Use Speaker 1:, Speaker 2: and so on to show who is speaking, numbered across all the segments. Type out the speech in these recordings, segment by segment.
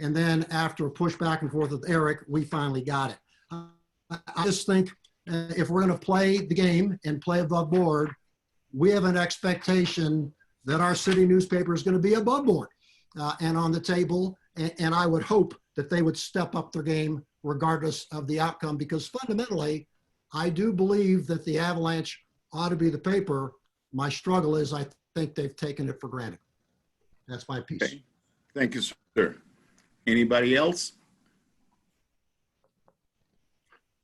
Speaker 1: And then after a push back and forth with Eric, we finally got it. I I just think uh, if we're going to play the game and play above board, we have an expectation that our city newspaper is going to be above board uh, and on the table. And, and I would hope that they would step up their game regardless of the outcome because fundamentally, I do believe that the Avalanche ought to be the paper. My struggle is I think they've taken it for granted. That's my piece.
Speaker 2: Okay. Thank you, sir. Anybody else?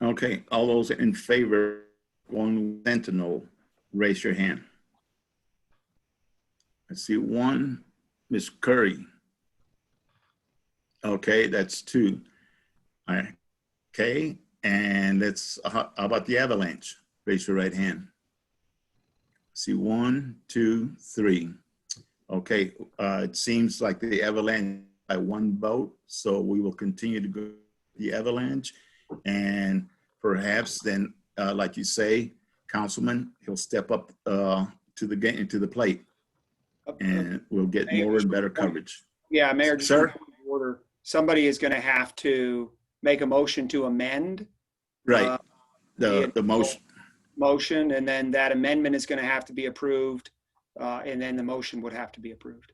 Speaker 2: Okay, all those in favor, one Sentinel, raise your hand. I see one, Miss Curry. Okay, that's two. All right, okay, and that's, how how about the Avalanche? Raise your right hand. See, one, two, three. Okay, uh, it seems like the Avalanche by one vote, so we will continue to go with the Avalanche. And perhaps then, uh, like you say, Councilman, he'll step up, uh, to the game, to the plate and we'll get more and better coverage.
Speaker 3: Yeah, Mayor, just
Speaker 2: Sir?
Speaker 3: order, somebody is going to have to make a motion to amend uh,
Speaker 2: Right, the, the most,
Speaker 3: motion, and then that amendment is going to have to be approved, uh, and then the motion would have to be approved.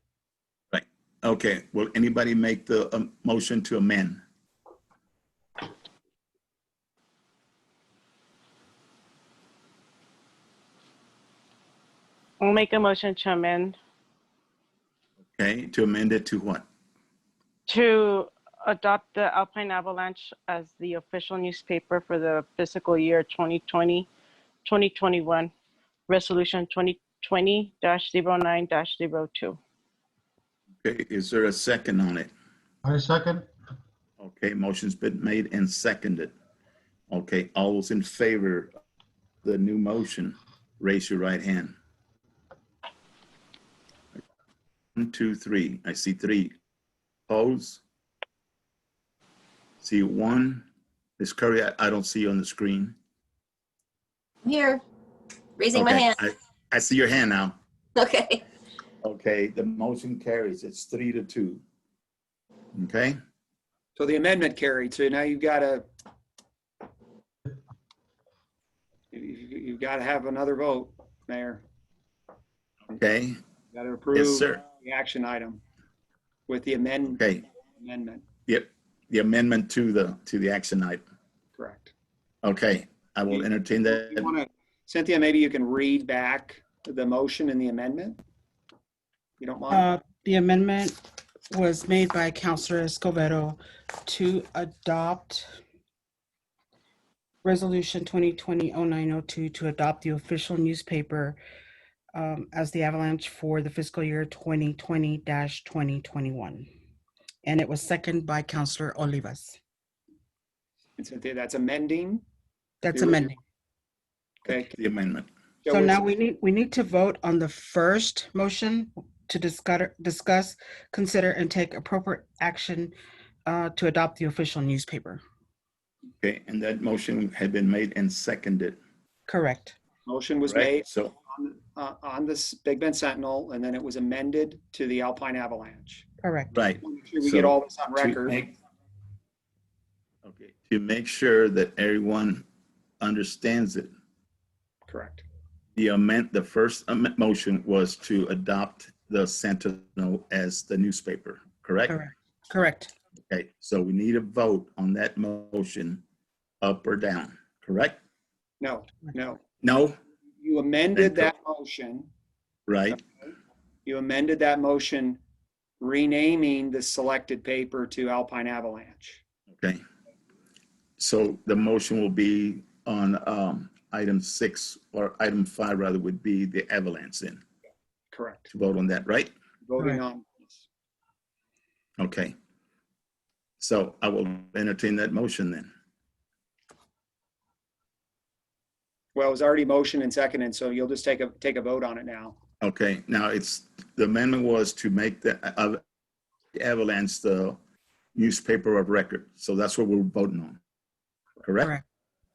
Speaker 2: okay, will anybody make the um, motion to amend?
Speaker 4: We'll make a motion to amend
Speaker 2: Okay, to amend it to what?
Speaker 4: to adopt the Alpine Avalanche as the official newspaper for the fiscal year 2020, 2021, Resolution 2020-09-02.
Speaker 2: Okay, is there a second on it?
Speaker 5: I second.
Speaker 2: Okay, motion's been made and seconded. Okay, all those in favor of the new motion, raise your right hand. One, two, three. I see three. Pose. See one. Ms. Curry, I, I don't see you on the screen.
Speaker 6: Here, raising my
Speaker 2: Okay,
Speaker 6: hand.
Speaker 2: I- I see your hand now.
Speaker 6: Okay.
Speaker 2: Okay, the motion carries. It's three to two. Okay?
Speaker 3: So the amendment carried, so now you've got to, you've got to have another vote, Mayor.
Speaker 2: Okay,
Speaker 3: Got to
Speaker 2: yes,
Speaker 3: approve
Speaker 2: sir.
Speaker 3: the action item with the amend-
Speaker 2: Okay,
Speaker 3: amendment,
Speaker 2: yep, the amendment to the, to the action item.
Speaker 3: correct.
Speaker 2: Okay, I will entertain
Speaker 3: You
Speaker 2: that.
Speaker 3: wanna- Cynthia, maybe you can read back the motion and the amendment? If You don't mind?
Speaker 7: Uh, The amendment was made by Counselor Escobedo to adopt Resolution 2020-0902 to adopt the official newspaper um, as the Avalanche for the fiscal year 2020-2021. And it was seconded by Counselor Olivas.
Speaker 3: And Cynthia, that's amending?
Speaker 7: That's
Speaker 3: You're-
Speaker 7: amending.
Speaker 3: Okay.
Speaker 2: The amendment.
Speaker 7: So now we need, we need to vote on the first motion to discuss, discuss, consider, and take appropriate action uh, to adopt the official newspaper.
Speaker 2: Okay, and that motion had been made and seconded.
Speaker 7: Correct.
Speaker 3: Motion was
Speaker 2: right?
Speaker 3: made
Speaker 2: So,
Speaker 3: on, uh, on this Big Bend Sentinel, and then it was amended to the Alpine Avalanche.
Speaker 7: Correct.
Speaker 2: right.
Speaker 3: Make sure we get
Speaker 2: So,
Speaker 3: all this on
Speaker 2: to
Speaker 3: record.
Speaker 2: make- Okay, to make sure that everyone understands it,
Speaker 3: Correct.
Speaker 2: the amend, the first amendment motion was to adopt the Sentinel as the newspaper, correct?
Speaker 7: Correct. Correct.
Speaker 2: Okay, so we need a vote on that motion, up or down, correct?
Speaker 3: No, no.
Speaker 2: No,
Speaker 3: You amended that motion.
Speaker 2: right?
Speaker 3: You amended that motion renaming the selected paper to Alpine Avalanche.
Speaker 2: Okay. So the motion will be on um, item six, or item five rather, would be the avalanche then,
Speaker 3: Correct.
Speaker 2: to vote on that, right?
Speaker 3: Voting
Speaker 7: Correct.
Speaker 3: on this.
Speaker 2: Okay. So I will entertain that motion then.
Speaker 3: Well, it was already motioned and seconded, so you'll just take a, take a vote on it now.
Speaker 2: Okay, now it's, the amendment was to make the uh, the avalanche the newspaper of record. So that's what we're voting on, correct?
Speaker 7: Correct.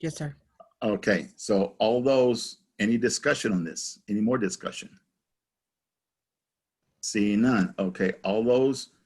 Speaker 7: Yes, sir.
Speaker 2: Okay, so all those, any discussion on this? Any more discussion? Seeing none. Okay, all those